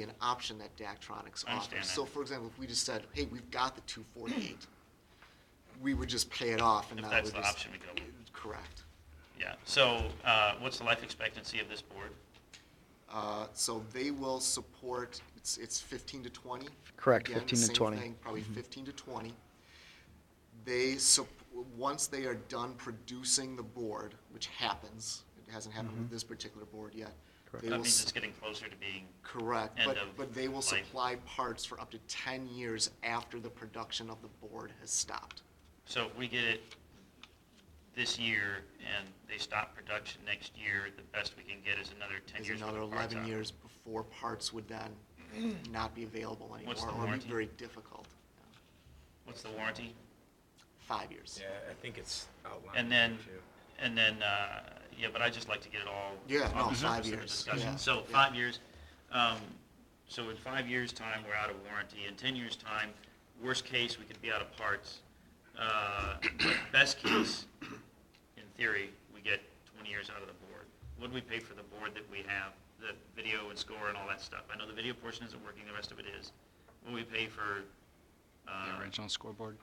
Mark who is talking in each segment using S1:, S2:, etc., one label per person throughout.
S1: be an option that Daktronics
S2: I understand
S1: offers.
S2: that.
S1: So for example, if we just said, hey, we've got the two forty-eight, we would just pay it off and
S2: If
S1: not.
S2: that's
S1: would
S2: the
S1: just-
S2: option we go with.
S1: Correct.
S2: Yeah, so, uh, what's the life expectancy of this board?
S1: Uh, So they will support, it's, it's 15 to 20?
S3: Correct,
S1: Again,
S3: 15 to Mm-hmm. 20.
S1: Same thing, probably 15 to 20. They, sup- once they are done producing the board, which happens, it hasn't happened with this particular board yet.
S3: Mm-hmm. Correct.
S1: they
S2: That
S1: will
S2: means
S1: s-
S2: it's getting closer to being,
S1: Correct,
S2: end
S1: but,
S2: of
S1: but they will
S2: life.
S1: supply parts for up to 10 years after the production of the board has stopped.
S2: so if we get it this year and they stop production next year, the best we can get is another ten
S1: Is
S2: years. worth
S1: another
S2: of parts
S1: 11
S2: out.
S1: years before parts would then not be available anymore.
S2: What's the
S1: Or be
S2: warranty?
S1: very difficult.
S2: What's the warranty?
S1: Five years.
S4: Yeah, I think it's outlined.
S2: And
S4: there,
S2: then,
S4: too.
S2: and then, uh, yeah, but I'd just like to get it all.
S1: Yeah, no,
S2: off the
S1: five
S2: surface of the
S1: years,
S2: discussion.
S1: yeah,
S2: So
S1: yeah.
S2: five years, um, so in five years' time, we're out of warranty. In ten years' time, worst case, we could be out of parts. Uh, But best case, in theory, we get twenty years out of the board. What do we pay for the board that we have, the video and score and all that stuff? I know the video portion isn't working, the rest of it is. What do we pay for? uh,
S5: The original scoreboard?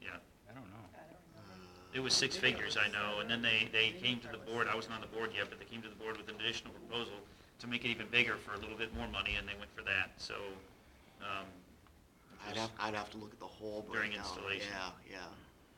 S2: Yeah.
S5: I don't know.
S1: Uh,
S2: It was six figures, I know, and then they, they came to the board, I wasn't on the board yet, but they came to the board with an additional proposal to make it even bigger for a little bit more money, and they went for that, so, um,
S1: I'd have, I'd have to look at the whole breakdown.
S2: During installation.
S1: Yeah,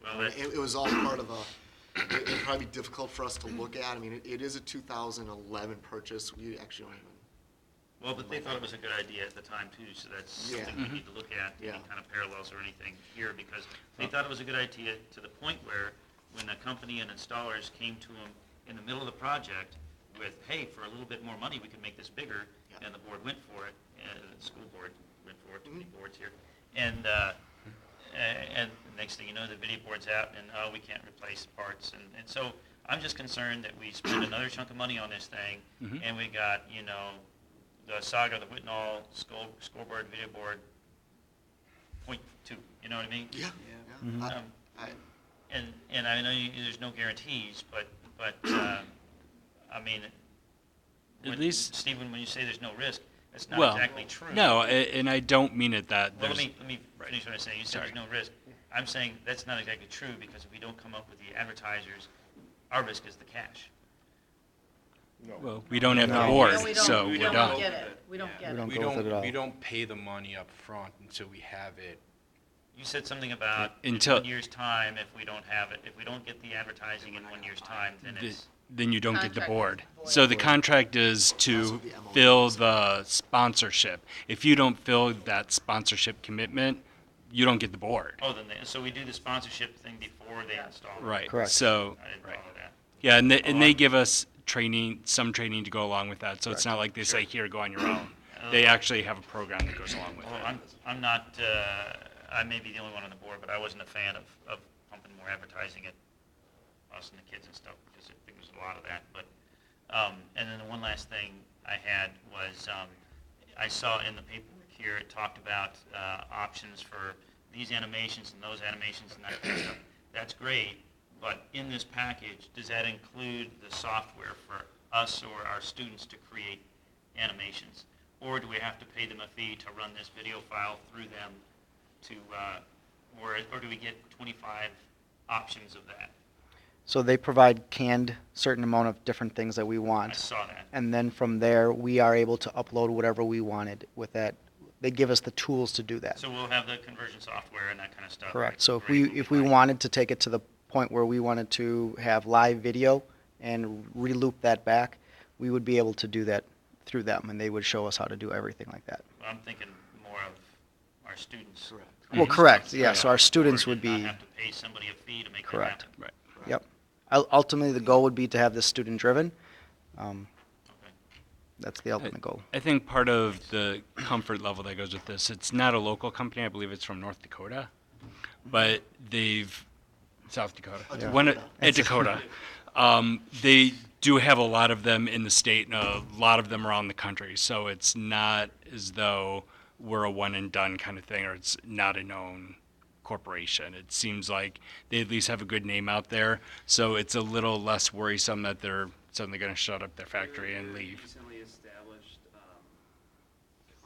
S2: well,
S1: yeah.
S2: that,
S1: It, it was all part of a, it- it'd probably be difficult for us to look at. I mean, it, it is a two thousand eleven purchase. We actually don't even,
S2: well, but they thought it was a good idea at the time too, so that's
S1: Yeah.
S2: something we need to look at, any
S1: Yeah.
S2: kind of parallels or anything here, because they thought it was a good idea to the point where when a company and installers came to them in the middle of the project with, hey, for a little bit more money, we can make this bigger,
S1: Yeah.
S2: and the board went for it, and the school board went for it, too many
S1: Mhm.
S2: boards here. And, uh, a- and the next thing you know, the video board's out and, oh, we can't replace parts. And, and so I'm just concerned that we spend another chunk of money on this thing
S5: Mhm.
S2: and we got, you know, the saga, the Whitnall score, scoreboard, video board, point two, you know what I mean?
S1: yeah, yeah. I-
S2: Um,
S1: I-
S2: And, and I know you, there's no guarantees, but, but, uh, I mean,
S5: At
S2: when-
S5: least-
S2: Stephen, when you say there's no risk, that's not
S5: Well,
S2: exactly true.
S5: No, a- and I don't mean it that
S2: Well,
S5: there's,
S2: let me, let me finish what I'm saying. You said there's no risk. I'm saying that's not exactly true, because if we don't come up with the advertisers, our risk is the cash.
S5: well, we don't have the
S3: No.
S5: board,
S6: No, we don't.
S5: so
S6: We
S5: we're
S6: don't
S5: done.
S6: get it. We don't get
S3: We
S6: it.
S3: don't
S4: We
S3: go with it at
S4: don't,
S3: all.
S4: we don't pay the money up front until we have it.
S2: You said something about in
S5: Until-
S2: one year's time, if we don't have it, if we don't get the advertising in one year's time, then
S5: Th-
S2: it's,
S5: Then you don't get the
S6: Contract
S5: board.
S6: with the
S5: So the
S1: board.
S5: contract is to
S1: That's what the MOU
S5: fill the sponsorship. If you don't fill that sponsorship commitment, you don't get the board.
S2: oh, then, they- so we do the sponsorship thing before they install. it.
S5: Right.
S3: Correct.
S5: So,
S2: I didn't follow
S5: right.
S2: that.
S5: Yeah, and they, and they give us training, some training to go along with that. So it's not like they say, here, go on your own. They actually have a program that goes along with
S2: Well,
S5: it.
S2: I'm, I'm not, uh, I may be the only one on the board, but I wasn't a fan of, of pumping more advertising at us and the kids and stuff, because I think there's a lot of that, but, um, and then the one last thing I had was, um, I saw in the paperwork here, it talked about, uh, options for these animations and those animations and that kind of stuff. That's great, but in this package, does that include the software for us or our students to create animations? Or do we have to pay them a fee to run this video file through them to, uh, or, or do we get twenty-five options of that?
S3: So they provide canned certain amount of different things that we
S2: I
S3: want.
S2: saw that.
S3: And then from there, we are able to upload whatever we wanted with that. They give us the tools to do that.
S2: So we'll have the conversion software and that kind of stuff.
S3: Correct. So if
S2: Great,
S3: we,
S2: we'll be
S3: if we
S2: fine.
S3: wanted to take it to the point where we wanted to have live video and reloop that back, we would be able to do that through them and they would show us how to do everything like that.
S2: Well, I'm thinking more of our students.
S1: Correct.
S3: Well, correct. Yeah. So our students would
S2: Mm-hmm. Not
S3: be,
S2: have to pay somebody a fee to make that
S3: Correct.
S2: happen.
S5: Right.
S3: yep. Ul- Ultimately, the goal would be to have this student driven. Um,
S2: Okay.
S3: that's the ultimate goal.
S5: I think part of the comfort level that goes with this, it's not a local company. I believe it's from North Dakota, but they've South Dakota.
S1: A
S5: One of-
S1: Dakota.
S5: a Dakota. Um, they do have a lot of them in the state and a lot of them around the country. So it's not as though we're a one and done kind of thing, or it's not a known corporation. It seems like they at least have a good name out there. So it's a little less worrisome that they're suddenly going to shut up their factory and leave.
S7: Recently, is